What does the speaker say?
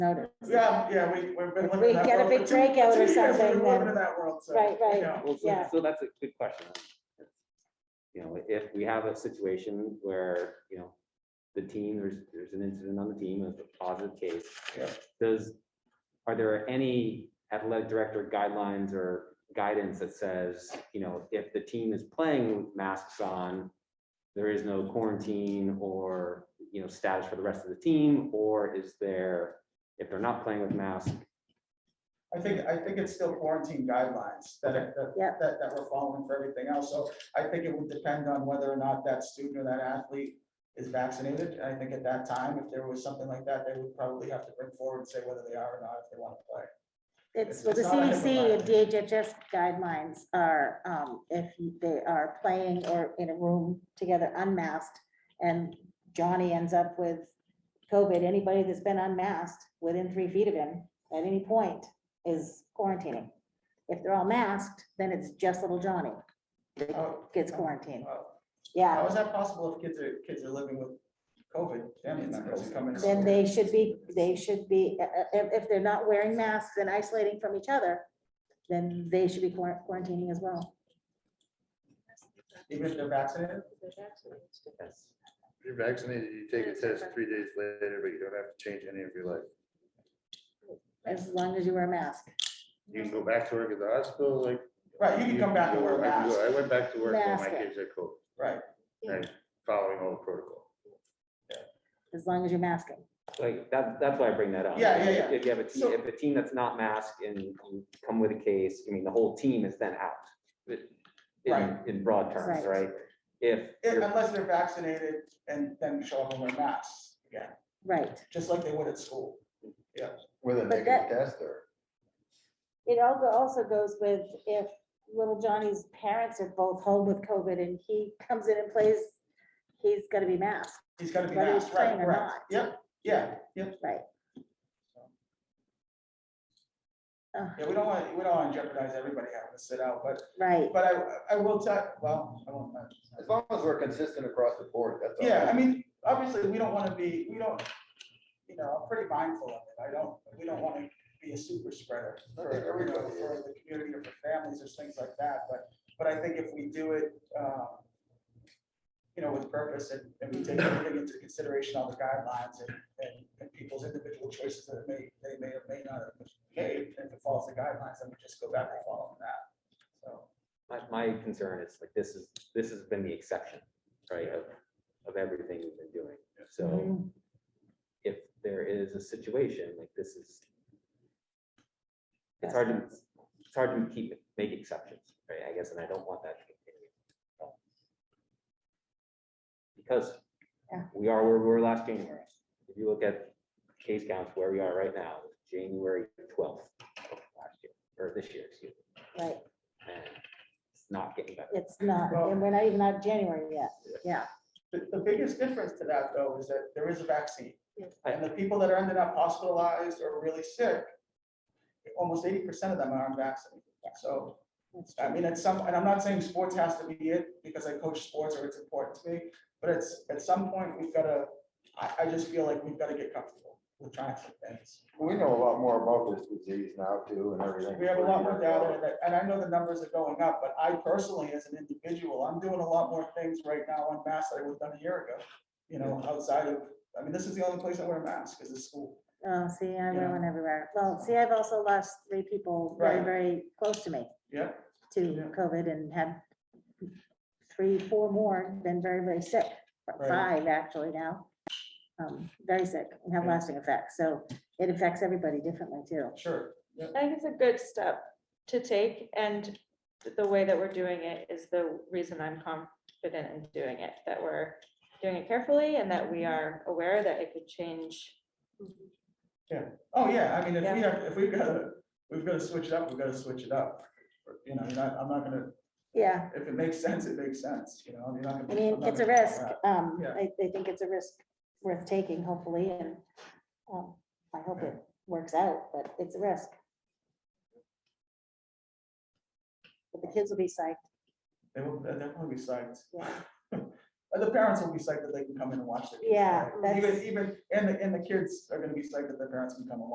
notice. Yeah, yeah, we, we've been. If living we in that get a world big for two- breakout two or years, we've been something, living then- in that world, so, Right, right. yeah. Well, so, Yeah. so that's a good question. It's, You know, if we have a situation where, you know, the team, there's, there's an incident on the team, it's a positive case. Yeah. Does, are there any athletic director guidelines or guidance that says, you know, if the team is playing with masks on, there is no quarantine or, you know, status for the rest of the team, or is there, if they're not playing with masks, I think, I think it's still quarantine guidelines that, are- Yeah. that, that, that we're following for everything else. So I think it would depend on whether or not that student or that athlete is vaccinated. And I think at that time, if there was something like that, they would probably have to bring forward and say whether they are or not if they want to play. It's, It's- well, the it's not a HIPAA CDC and DHHS guidelines are, um, if you- they are playing or in a room together unmasked, and Johnny ends up with COVID, anybody that's been unmasked within three feet of him at any point is quarantining. If they're all masked, then it's just little Johnny Oh, gets quarantined. oh, Yeah, How is that possible if kids are, kids are living with COVID, family members who come in? then they should be, they should be, uh, uh, if, if they're not wearing masks and isolating from each other, then they should be quar- quarantining as well. Even if they're vaccinated? that's If You're vaccinated, you take a test three days later, but you don't have to change any of your life. As long as you wear a mask. You can go back to work at the hospital, like. Right, you can come back and wear a I can go- mask. I went back to work when my Mask, yeah. kids had COVID, Right, following all the protocol. As long as you're masking. Like, that, that's why I bring that up. Yeah, yeah, yeah. If you have a, team, So- if a team that's not masked and you come with a case, I mean, the whole team is then out. But In, Right. in broad terms, Right. right? If, If- you're- unless they're vaccinated and then show up and wear masks again, Right. just like they would at school. With a negative that- test or? It all go- also goes with if little Johnny's parents are both home with COVID and he comes in and plays, he's gonna be masked, He's gotta be whether he's masked, right, playing or right. not. Yep, yeah, yep. Right. Ugh, Yeah, we don't want, we don't want to jeopardize everybody having to sit out, but, Right, but I, I will tell, well, I won't. As long as we're consistent across the board, that's all. Yeah, I mean, obviously, we don't want to be, we don't, you know, I'm pretty mindful of it. I don't, we don't want to be a super spreader for, you know, Everybody for the community or for families, there's things like that, but, but I think if we do it, um, you know, with purpose and, and we take everything into consideration, all the guidelines and, and, and people's individual choices that may, they may or may not have made, and if it follows the guidelines, then we just go back and follow that, so. my, my concern is like, this is, this has been the exception, right, of, of everything we've been doing. So Mhm. if there is a situation like this is, it's hard to, it's hard to keep, make exceptions, right, I guess, and I don't want that to continue. Because Yeah. we are where we were last January. If you look at case counts where we are right now, January twelfth of last year, or this year, excuse me, Mm-hmm, right. and it's not getting better. It's not, and we're not even out of January yet. Yeah, The, the biggest difference to that though is that there is a vaccine. Yeah. And the people that are ended up hospitalized or really sick, almost eighty percent of them are unvaccinated. So, that's I true. mean, it's some, and I'm not saying sports has to be it because I coach sports or it's important to me, but it's, at some point, we've gotta, I, I just feel like we've gotta get comfortable with trying some things. We know a lot more about this disease now too and everything. We have a lot more data, and I- and I know the numbers are going up, but I personally, as an individual, I'm doing a lot more things right now on masks that I would have done a year ago. You know, outside of, I mean, this is the only place I wear a mask, is the school. Oh, see, I Yeah. wear one everywhere. Well, see, I've also lost three people very, Right. very close to me. Yeah. to Yeah. COVID and had three, four more, been very, very sick, Right. five actually now. um, Very sick and have Yeah. lasting effects. So it affects everybody differently too. Sure. I think it's a good step to take and th- the way that we're doing it is the reason I'm confident in doing it, that we're doing it carefully and that we are aware that it could change. Oh, yeah, I mean, if we Yeah. have, if we've gotta, we've gotta switch it up, we've gotta switch it up. You know, I'm not, I'm not gonna, Yeah, if it makes sense, it makes sense, you know, you're not gonna. I mean, I'm not it's a gonna- risk. um, Yeah. I, I think it's a risk worth taking hopefully and um, I hope it works out, but it's a risk. But the kids will be psyched. They will, they'll definitely be psyched. Yeah. And the parents will be psyched that they can come in and watch their kids. Yeah, play. Even, that's- even, and the, and the kids are gonna be psyched that their parents can come along.